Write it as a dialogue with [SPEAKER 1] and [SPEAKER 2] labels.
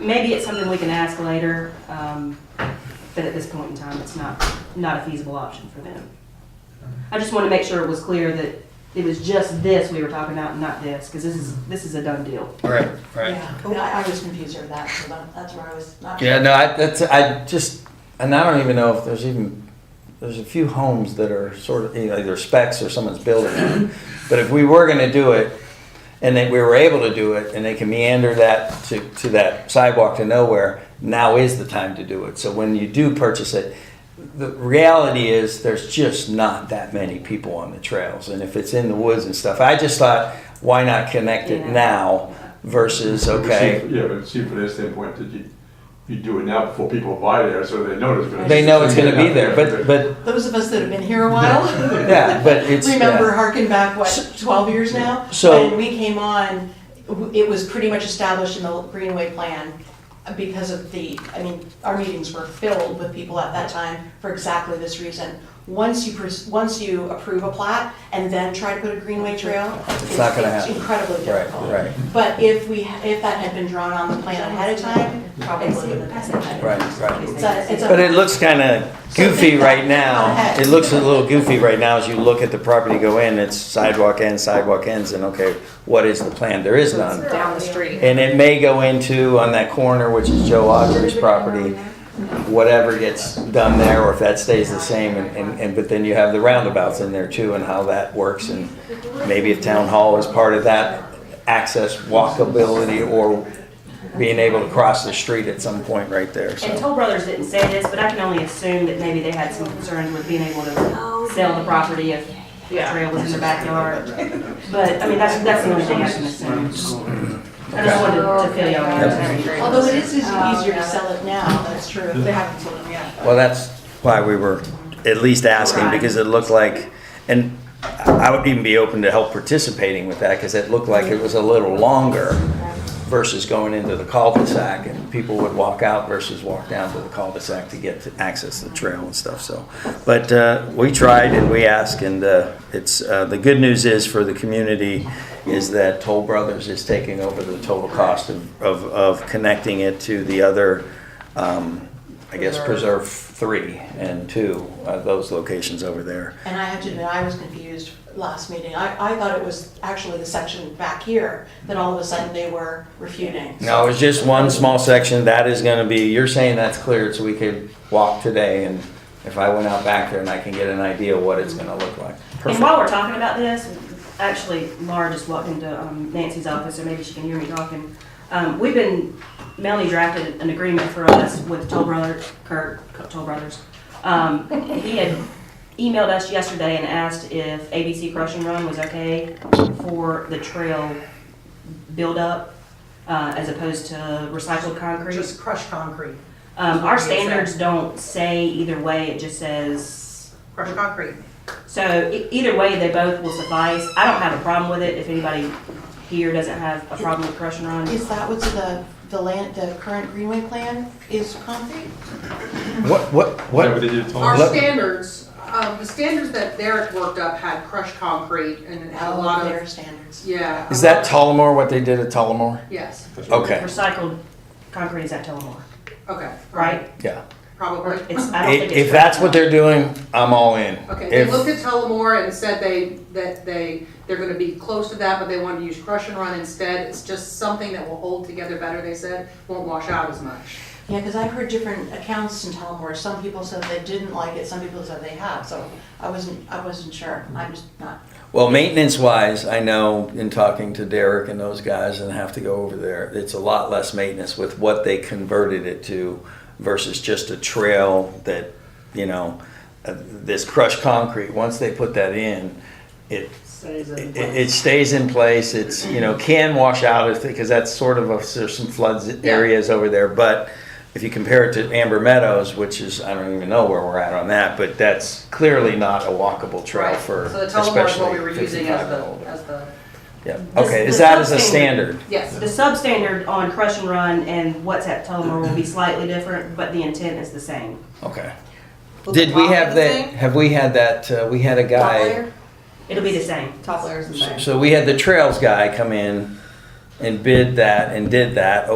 [SPEAKER 1] maybe it's something we can ask later, um, but at this point in time, it's not, not a feasible option for them. I just want to make sure it was clear that it was just this we were talking about, and not this, because this is, this is a done deal.
[SPEAKER 2] Right, right.
[SPEAKER 3] Yeah, and Oh, I, I was confused over that, so that- that's where I was not.
[SPEAKER 2] Yeah, no, I, that's, I just, and I don't even know if there's even, there's a few homes that are sort of, you know, either specs or someone's building on. But if we were gonna do it, and that we were able to do it, and they can meander that to, to that sidewalk to nowhere, now is the time to do it. So when you do purchase it, the reality is there's just not that many people on the trails. And if it's in the woods and stuff, I just thought, why not connect it
[SPEAKER 1] Yeah.
[SPEAKER 2] now versus, okay?
[SPEAKER 4] Yeah, but see, from their standpoint, did you, you do it now before people buy there, so they know it's gonna.
[SPEAKER 2] They know it's gonna be there, but, but,
[SPEAKER 3] Those of us that have been here a while.
[SPEAKER 2] yeah, but it's,
[SPEAKER 3] Remember
[SPEAKER 2] yeah,
[SPEAKER 3] harking back, what, twelve years now?
[SPEAKER 2] So-
[SPEAKER 3] When we came on, w- it was pretty much established in the Greenway plan because of the, I mean, our meetings were filled with people at that time for exactly this reason. Once you, pers- once you approve a plat and then try to put a Greenway trail, it's
[SPEAKER 2] not gonna
[SPEAKER 3] it's
[SPEAKER 2] happen.
[SPEAKER 3] incredibly
[SPEAKER 2] right,
[SPEAKER 3] difficult.
[SPEAKER 2] right,
[SPEAKER 3] But if we, ha- if that had been drawn on the plan ahead of time, probably would have been.
[SPEAKER 2] right, right.
[SPEAKER 3] It's a- it's a-
[SPEAKER 2] But it looks kinda goofy right now, it looks a little goofy right now as you look at the property go in, it's sidewalk ends, sidewalk ends, and okay, what is the plan? There is none.
[SPEAKER 5] down the street.
[SPEAKER 2] And it may go into, on that corner, which is Joe Audrey's property, whatever gets done there, or if that stays the same, and- and, and, but then you have the roundabouts in there too, and how that works, and maybe if town hall is part of that, access walkability, or being able to cross the street at some point right there,
[SPEAKER 1] And
[SPEAKER 2] so.
[SPEAKER 1] Toll Brothers didn't say this, but I can only assume that maybe they had some concerns with being able to sell the property if the trail was in the backyard. But, I mean, that's, that's the only thing I can assume. I just wanted to fill y'all in.
[SPEAKER 3] Although it is
[SPEAKER 5] Uh,
[SPEAKER 3] easier to sell it now, that's true. They haven't sold them yet.
[SPEAKER 2] Well, that's why we were at least asking, because it looked like, and I would even be open to help participating with that, because it looked like it was a little longer versus going into the cul-de-sac, and people would walk out versus walk down to the cul-de-sac to get to access the trail and stuff, so. But uh, we tried and we asked, and uh, it's, uh, the good news is for the community is that Toll Brothers is taking over the total cost of, of, of connecting it to the other, um, I guess, Preserve Three and Two, uh, those locations over there.
[SPEAKER 3] And I have to admit, I was confused last meeting. I, I thought it was actually the section back here that all of a sudden they were refuting.
[SPEAKER 2] No, it's just one small section, that is gonna be, you're saying that's cleared, so we could walk today, and if I went out back there and I can get an idea of what it's gonna look like.
[SPEAKER 1] And
[SPEAKER 2] Perfect.
[SPEAKER 1] while we're talking about this, actually, Laura just walked into um, Nancy's office, or maybe she can hear me talking. Um, We've been, Melanie drafted an agreement for us with Toll Brothers, Kurt, Toll Brothers. Um, He had emailed us yesterday and asked if ABC Crushing Run was okay for the trail buildup uh, as opposed to recycled concrete.
[SPEAKER 6] Just crushed concrete,
[SPEAKER 1] Um, Our
[SPEAKER 6] Is that-
[SPEAKER 1] standards don't say either way, it just says
[SPEAKER 6] crushed concrete.
[SPEAKER 1] so e- either way, they both will suffice. I don't have a problem with it if anybody here doesn't have a problem with crush and run.
[SPEAKER 3] Is that what's in the, the land, the current Greenway plan is concrete?
[SPEAKER 2] What, what,
[SPEAKER 4] Is that what
[SPEAKER 2] what,
[SPEAKER 4] they did, Tom?
[SPEAKER 5] Our
[SPEAKER 2] Let-
[SPEAKER 5] standards, uh, the standards that Derek worked up had crushed concrete and it
[SPEAKER 1] Oh,
[SPEAKER 5] had a lot
[SPEAKER 3] Their
[SPEAKER 5] of,
[SPEAKER 3] standards.
[SPEAKER 5] yeah.
[SPEAKER 2] is that Tullamore, what they did at Tullamore?
[SPEAKER 5] Yes,
[SPEAKER 2] Okay,
[SPEAKER 1] Recycled concrete is at Tullamore,
[SPEAKER 5] okay,
[SPEAKER 1] right?
[SPEAKER 2] yeah.
[SPEAKER 1] Or
[SPEAKER 5] probably.
[SPEAKER 1] it's, I don't
[SPEAKER 2] If,
[SPEAKER 1] think it's.
[SPEAKER 2] if that's what they're doing, I'm all in.
[SPEAKER 5] Okay, they looked
[SPEAKER 2] If,
[SPEAKER 5] at Tullamore and said they, that they, they're gonna be close to that, but they want to use crush and run instead. It's just something that will hold together better, they said, won't wash out as much.
[SPEAKER 3] Yeah, because I've heard different accounts in Tullamore. Some people said they didn't like it, some people said they have, so I wasn't, I wasn't sure. I'm just not
[SPEAKER 2] well, maintenance wise, I know in talking to Derek and those guys and have to go over there, it's a lot less maintenance with what they converted it to versus just a trail that, you know, uh, this crushed concrete, once they put that in, it, it, it stays in place. It's you know can wash out if because that's sort of a, there's some floods areas over there. But if you compare it to Amber Meadows, which is I don't even know where we're at on that, but that's clearly not a walkable trail
[SPEAKER 5] Right.
[SPEAKER 2] for
[SPEAKER 5] So the Tullamore is
[SPEAKER 2] especially
[SPEAKER 5] what we were using
[SPEAKER 2] 55
[SPEAKER 5] as
[SPEAKER 2] and
[SPEAKER 5] the,
[SPEAKER 2] older.
[SPEAKER 5] as the,
[SPEAKER 2] Yeah. Okay.
[SPEAKER 1] The-
[SPEAKER 2] Is
[SPEAKER 1] the
[SPEAKER 2] that as a
[SPEAKER 1] something-
[SPEAKER 2] standard?
[SPEAKER 5] yes.
[SPEAKER 1] The substandard on crush and run and what's at Tullamore will be slightly different, but the intent is the same.
[SPEAKER 2] Okay.
[SPEAKER 7] Well,
[SPEAKER 2] Did
[SPEAKER 7] the
[SPEAKER 2] we
[SPEAKER 7] top
[SPEAKER 2] have
[SPEAKER 7] of the
[SPEAKER 2] that?
[SPEAKER 7] thing-
[SPEAKER 2] Have we had that? Uh, we had a
[SPEAKER 7] Top
[SPEAKER 2] guy.
[SPEAKER 7] layer?
[SPEAKER 1] It'll be the same.
[SPEAKER 7] Top layers and things.
[SPEAKER 2] So we had the trails guy come in and bid that and did that